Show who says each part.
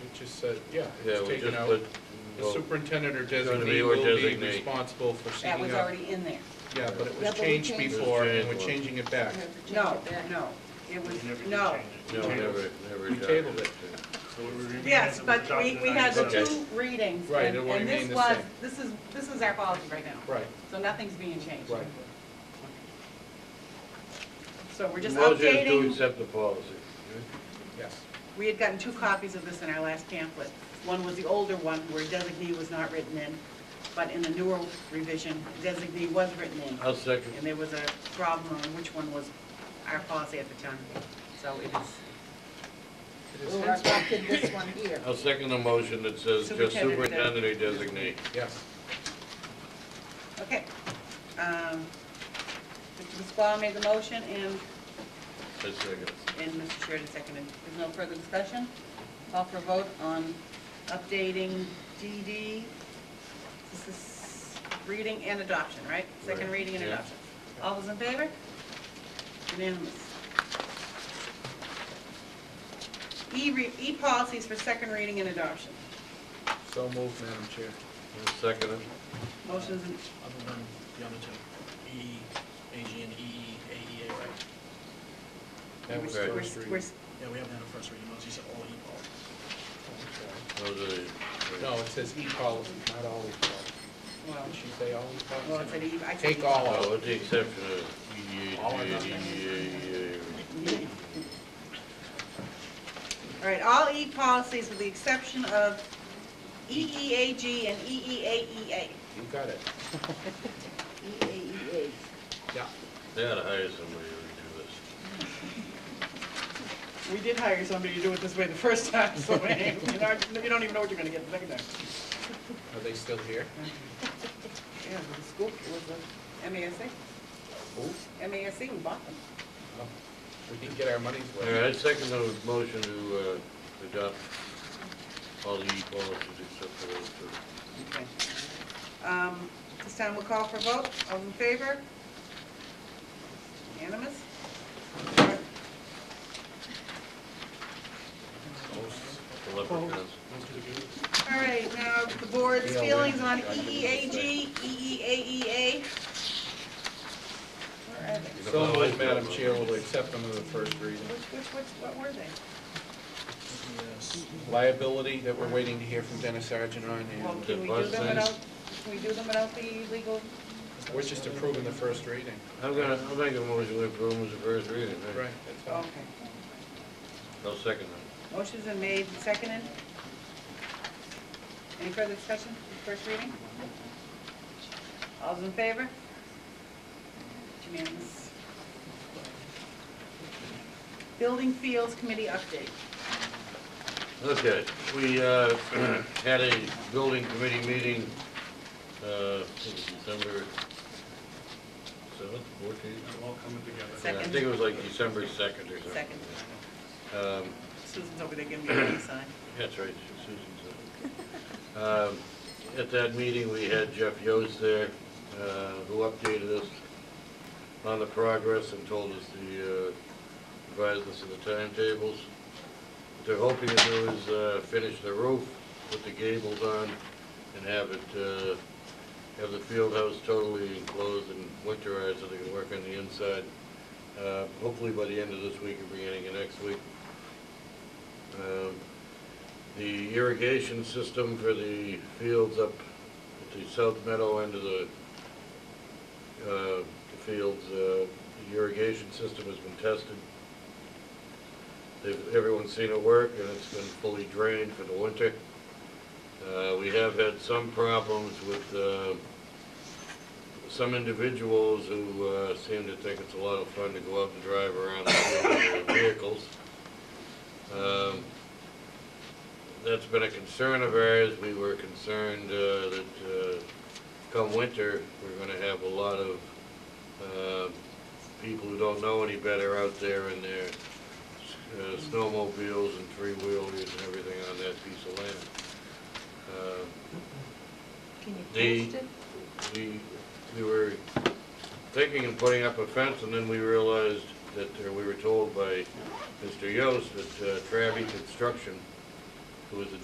Speaker 1: just said, yeah,
Speaker 2: Yeah,
Speaker 1: it's
Speaker 2: we
Speaker 1: taken
Speaker 2: just
Speaker 1: out.
Speaker 2: put-
Speaker 1: The superintendent or
Speaker 2: gonna be
Speaker 1: designee
Speaker 2: or
Speaker 1: will be
Speaker 2: designate.
Speaker 1: responsible for
Speaker 3: That
Speaker 1: seeking
Speaker 3: was
Speaker 1: out.
Speaker 3: already in there.
Speaker 1: Yeah, but it
Speaker 4: Yeah,
Speaker 1: was
Speaker 4: but we
Speaker 1: changed
Speaker 4: changed it.
Speaker 1: before, and
Speaker 2: It
Speaker 1: we're
Speaker 2: was
Speaker 1: changing it back.
Speaker 3: No, no, it was, no.
Speaker 2: No,
Speaker 1: Okay.
Speaker 2: never, never.
Speaker 1: We tabled it.
Speaker 3: Yes, but we, we had the
Speaker 2: Okay.
Speaker 3: two readings.
Speaker 1: Right,
Speaker 3: and-
Speaker 1: it won't
Speaker 3: and
Speaker 1: mean
Speaker 3: this
Speaker 1: the
Speaker 3: was-
Speaker 1: same.
Speaker 3: This is, this is our policy right now.
Speaker 1: Right,
Speaker 3: So nothing's being changed.
Speaker 1: right.
Speaker 3: So we're just
Speaker 2: Motion to
Speaker 3: updating,
Speaker 2: accept the policy.
Speaker 1: Yes.
Speaker 3: we had gotten two copies of this in our last pamphlet. One was the older one where designee was not written in, but in the newer revision, designee was written in.
Speaker 2: I'll second.
Speaker 3: And there was a problem on which one was our policy at the time. So it is,
Speaker 1: It is-
Speaker 4: We'll reflect in this one here.
Speaker 2: I'll second the motion that says just
Speaker 3: Superintendent
Speaker 2: superintendent or designate.
Speaker 1: Yes.
Speaker 3: okay. Um, Mr. Pasquale made the motion and
Speaker 2: I'll second.
Speaker 3: And Mr. Sheridan seconded. There's no further discussion? Call for a vote on updating DD. This is reading and adoption, right? Second
Speaker 2: Right,
Speaker 3: reading and
Speaker 2: yeah.
Speaker 3: adoption. All those in favor? Unanimous. E, re- E policies for second reading and adoption.
Speaker 1: So moved, Madam Chair.
Speaker 2: I'll second it.
Speaker 3: Motions, and-
Speaker 5: Other than the other two, E, AG and E, EE, AEA, right?
Speaker 1: That was
Speaker 3: we're-
Speaker 2: Okay.
Speaker 1: first
Speaker 3: we're- we're-
Speaker 1: reading.
Speaker 5: Yeah, we haven't had a first reading, those are all E policies.
Speaker 2: Those are the.
Speaker 1: No, it says e-policy, not all e-policy.
Speaker 3: well,
Speaker 1: Did she say all
Speaker 3: well, it's
Speaker 1: e-policy?
Speaker 3: an E, I said
Speaker 1: Take
Speaker 3: E.
Speaker 1: all
Speaker 2: Oh,
Speaker 1: out.
Speaker 2: with the exception of EDA,
Speaker 1: All or
Speaker 2: DDA,
Speaker 1: nothing.
Speaker 2: EDA,
Speaker 3: All right, all E policies with the exception of E EEAG and E EEAEA.
Speaker 1: You got it.
Speaker 4: EAEA.
Speaker 1: Yeah.
Speaker 2: they ought to hire somebody to do this.
Speaker 3: We did hire somebody to do it this way the first time, so you know, you don't even know what you're gonna get the second time.
Speaker 1: Are they still here?
Speaker 3: Yeah, but the school was a MASC,
Speaker 1: Oh,
Speaker 3: MASC, we bought them.
Speaker 1: well, We didn't get our money's
Speaker 2: All right, I
Speaker 1: worth.
Speaker 2: second the motion to uh, adopt all the E policies except for those two.
Speaker 3: Okay. Um, This time we'll call for vote, all in favor? Unanimous?
Speaker 2: The leprechauns.
Speaker 3: All right, now the board's
Speaker 1: Yeah, we-
Speaker 3: feelings on E EEAG, E EEAEA. Where are they?
Speaker 1: So moved, Madam Chair, will accept them as a first reading.
Speaker 3: Which, which, which, what were they?
Speaker 5: Yes.
Speaker 1: Liability that we're waiting to hear from Dennis Sargent on,
Speaker 3: Well,
Speaker 1: and
Speaker 3: can we do them without, can we do them without the legal?
Speaker 1: we're just approving the first reading.
Speaker 2: I'm gonna, I'll make a motion to approve them as a first reading. right?
Speaker 1: Right.
Speaker 3: Okay.
Speaker 2: I'll second
Speaker 3: Motion's been made and seconded. Any further discussion, first reading? All's in favor? It's Unanimous. Building Fields Committee update.
Speaker 2: that. Okay, we, uh, had a building committee meeting, uh, I think it was December seventh, fourteenth?
Speaker 5: They're all coming together.
Speaker 2: uh, I
Speaker 3: Second.
Speaker 2: think it was like December second or something.
Speaker 3: Second.
Speaker 2: Um,
Speaker 3: Susan's over there giving me a hand sign.
Speaker 2: That's right, Susan's up. Um, At that meeting, we had Jeff Yost there, uh, who updated us on the progress and told us the, uh, advised us of the timetables. What They're hoping to do is uh, finish the roof, put the gables on, and have it, uh, have the field house totally enclosed and winterized so they can work on the inside. Uh, Hopefully by the end of this week or beginning of next week. Um, The irrigation system for the fields up at the south meadow end of the, uh, the fields, uh, the irrigation system has been tested. They've, everyone's seen it work and it's been fully drained for the winter. Uh, we have had some problems with, uh, some individuals who, uh, seem to think it's a lot of fun to go out and drive around the field in their vehicles. Um, That's been a concern of ours. We were concerned uh, that uh, come winter, we're going to have a lot of uh, people who don't know any better out there in their uh, snowmobiles and three-wheelers and everything on that piece of land. Uh,
Speaker 4: Can
Speaker 2: The-
Speaker 4: you post it?
Speaker 2: we, we were thinking of putting up a fence, and then we realized that, or we were told by Mr. Yost that uh, Travi Construction, uh, who was the